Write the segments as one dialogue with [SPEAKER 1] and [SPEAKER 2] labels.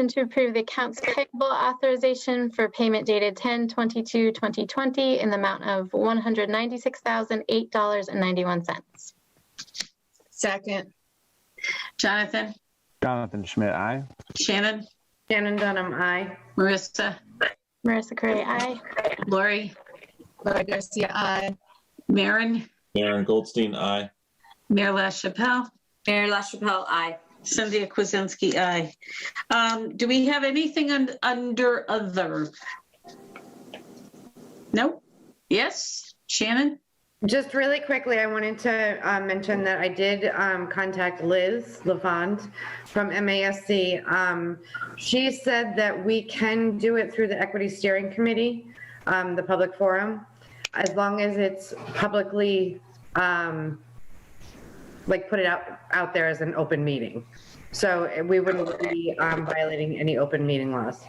[SPEAKER 1] Motion to approve the accounts payable authorization for payment dated 10/22/2020 in the amount of $196,008.91.
[SPEAKER 2] Second.
[SPEAKER 3] Jonathan,
[SPEAKER 4] Jonathan Schmidt, aye.
[SPEAKER 3] Shannon,
[SPEAKER 2] Shannon Dunham, aye.
[SPEAKER 3] Marissa,
[SPEAKER 1] Marissa Curry, aye.
[SPEAKER 3] Lori,
[SPEAKER 2] Laura Garcia, aye.
[SPEAKER 3] Maren,
[SPEAKER 5] Maren Goldstein, aye.
[SPEAKER 3] Mayor LaChapelle,
[SPEAKER 6] Mayor LaChapelle, aye.
[SPEAKER 3] Cynthia Kuzensky, aye. Um, do we have anything un- under other? Nope. Yes, Shannon?
[SPEAKER 7] Just really quickly, I wanted to uh, mention that I did um, contact Liz Levant from MASC. Um, She said that we can do it through the Equity Steering Committee, um, the public forum, as long as it's publicly, um, like, put it out, out there as an open meeting. So eh, we wouldn't be um, violating any open meeting laws.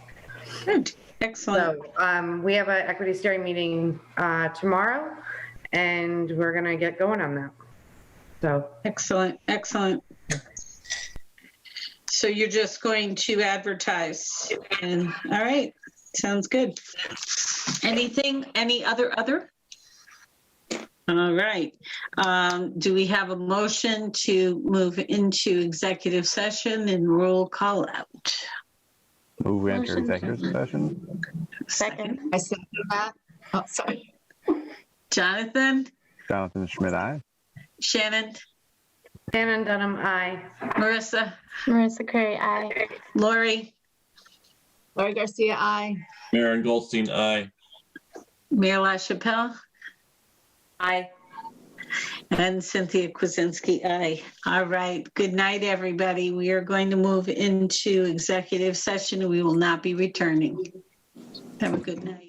[SPEAKER 3] Good, excellent.
[SPEAKER 7] So um, we have an equity steering meeting uh, tomorrow, and we're going to get going on that. So,
[SPEAKER 3] Excellent, excellent. So you're just going to advertise and, all right, sounds good. Anything, any other, other? All right, um, do we have a motion to move into executive session and roll call out?
[SPEAKER 4] Move we enter
[SPEAKER 1] Motion.
[SPEAKER 4] executive session.
[SPEAKER 1] Second.
[SPEAKER 2] I second that. Oh, sorry.
[SPEAKER 3] Jonathan,
[SPEAKER 4] Jonathan Schmidt, aye.
[SPEAKER 3] Shannon,
[SPEAKER 7] Shannon Dunham, aye.
[SPEAKER 3] Marissa,
[SPEAKER 1] Marissa Curry, aye.
[SPEAKER 3] Lori,
[SPEAKER 2] Laura Garcia, aye.
[SPEAKER 5] Maren Goldstein, aye.
[SPEAKER 3] Mayor LaChapelle?
[SPEAKER 6] Aye.
[SPEAKER 3] And Cynthia Kuzinski, aye. All right. Good night, everybody. We are going to move into executive session. We will not be returning. Have a good night.